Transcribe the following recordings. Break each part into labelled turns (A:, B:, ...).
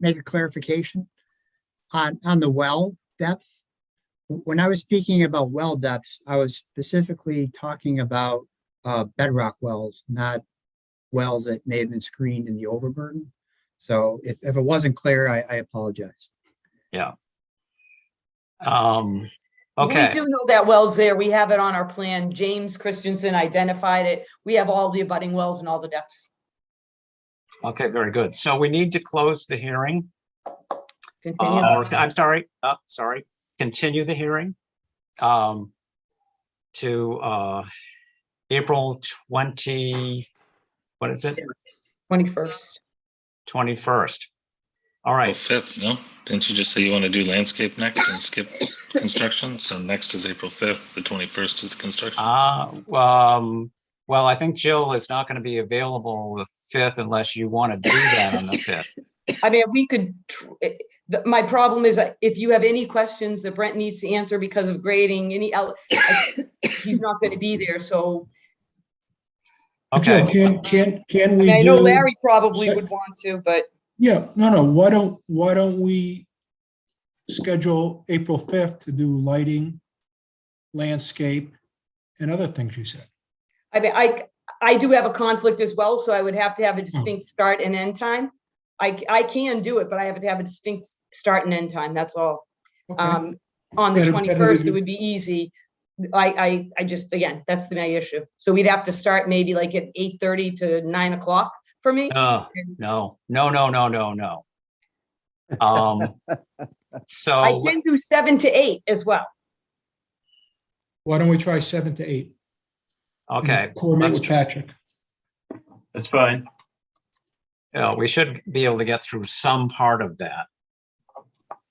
A: make a clarification on, on the well depth? When I was speaking about well depths, I was specifically talking about uh, bedrock wells, not wells that may have been screened in the overburden. So if, if it wasn't clear, I, I apologize.
B: Um,
C: We
B: okay,
C: do know that well's there. We have it on our plan. James Christensen identified it. We have all the abutting wells and all the depths.
B: okay, very good. So we need to close the hearing.
C: Continue.
D: Uh-huh.
B: uh, or- I'm sorry, uh, sorry, continue the hearing. Um, to, uh, April twenty, what is it?
C: 21st.
B: Twenty-first. All
E: Oh,
B: right,
E: Fifth, no? Didn't you just say you want to do landscape next and skip construction? So next is April fifth, the twenty-first is construction.
B: uh, um, well, I think Jill is not gonna be available the fifth unless you wanna do that on the fifth.
C: I mean, we could, tr- eh, the- my problem is that if you have any questions that Brent needs to answer because of grading, any, el- I- he's not going to be there. So
B: Okay,
D: Joe, Can, can, can
C: I
D: we
C: mean, I know
D: do?
C: Larry probably would want to, but
D: Yeah, no, no, why don't, why don't we schedule April 5th to do lighting, landscape, and other things you said?
C: I mean, I, I do have a conflict as well, so I would have to
D: Hmm.
C: have a distinct start and end time. I, I can do it, but I have to have a distinct start and end time, that's all.
D: Okay.
C: Um, on the
D: Better- better to
C: twenty-first, it
D: do-
C: would be easy. I, I, I just, again, that's the my issue. So we'd have to start maybe like at eight-thirty to nine o'clock for me.
B: no, no, no, no, no, no, no. Um,
C: I
B: so,
C: can do seven to eight as well.
D: Why don't we try 7 to 8? and
B: okay,
D: Coordinate
B: let's
D: with Patrick.
F: That's fine.
B: Yeah, we should be able to get through some part of that.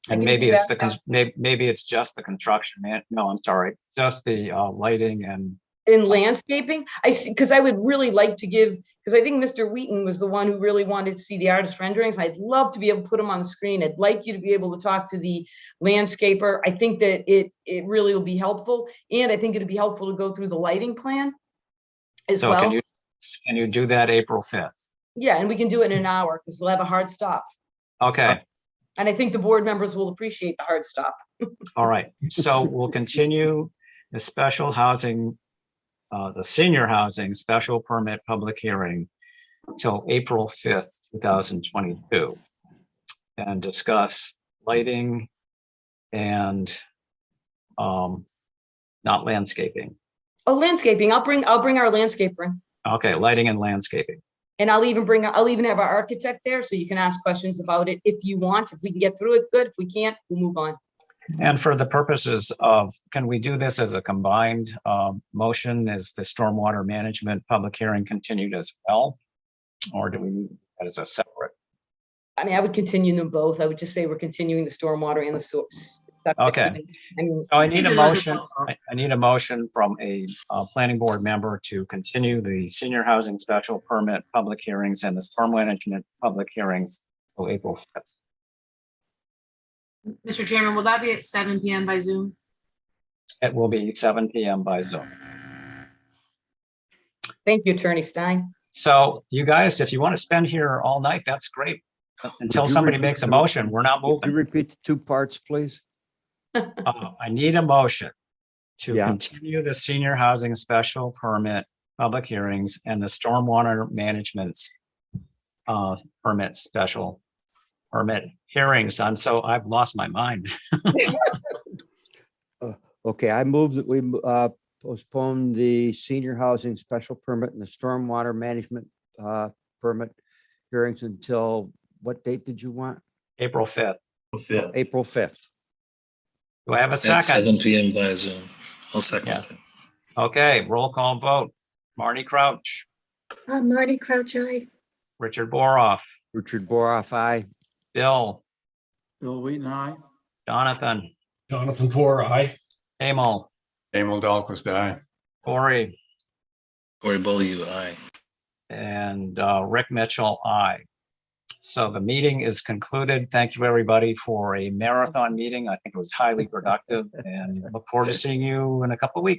C: I
B: And
C: can
B: maybe
C: do
B: it's
C: that.
B: the, cons- may- maybe it's just the construction, man, no, I'm sorry, just the uh, lighting and,
C: in landscaping, I see, because I would really like to give, because I think Mr. Wheaton was the one who really wanted to see the artist renderings. I'd love to be able to put them on the screen. I'd like you to be able to talk to the landscaper. I think that it, it really will be helpful. And I think it'd be helpful to go through the lighting plan as
B: so can
C: well.
B: you, s- can you do that April 5th?
C: Yeah, and we can do it in an hour because we'll have a hard stop.
B: Okay,
C: And I think the board members will appreciate the hard stop.
B: all right, so we'll continue the special housing, uh, the senior housing special permit public hearing till April 5th, 2022. And discuss lighting and um, not landscaping.
C: Oh, landscaping, I'll bring, I'll bring our landscaper in.
B: Okay, lighting and landscaping.
C: And I'll even bring, I'll even have our architect there, so you can ask questions about it if you want. If we can get through it, good. If we can't, we'll move on.
B: And for the purposes of, can we do this as a combined um, motion? Is the stormwater management public hearing continued as well? Or do we need that as a separate?
C: I mean, I would continue them both. I would just say we're continuing the stormwater and the source.
B: Okay.
C: I mean,
B: So Oh, I need a motion, I I need a motion from a uh, planning board member to continue the senior housing special permit public hearings and the storm management public hearings till April 5th.
G: Mr. Chairman, will that be at seven PM by Zoom?
B: It will be seven PM by Zoom.
C: thank you, Attorney Stein.
B: So you guys, if you want to spend here all night, that's great. Until
H: Would you
B: somebody
H: repeat
B: makes a
H: the-
B: motion, we're not
H: Could you
B: moving.
H: repeat the two parts, please?
B: Uh, I need a motion to
H: Yeah.
B: continue the senior housing special permit, public hearings and the stormwater management's uh, permit special permit hearings. And so I've lost my mind.
H: Okay, I move that we uh, postpone the senior housing special permit and the stormwater management uh, permit hearings until, what date did you want?
B: April 5th.
F: Fifth.
H: April 5th.
B: Do I have a
E: At seven
B: second?
E: PM via Zoom. I'll second.
B: Yes. Okay, roll call vote. Marty Crouch,
I: Uh, Marty Crouch, I,
B: Richard Boroff,
H: Richard Boroff, aye.
B: Bill,
F: Bill Wheaton, aye.
B: Jonathan,
F: Jonathan Core, aye.
B: Emil,
J: Emil Dahlquist, aye.
B: Corey.
E: Cory Bulley, aye.
B: And uh, Rick Mitchell, I. So the meeting is concluded. Thank you, everybody, for a marathon meeting. I think it was highly productive and look forward to seeing you in a couple of weeks.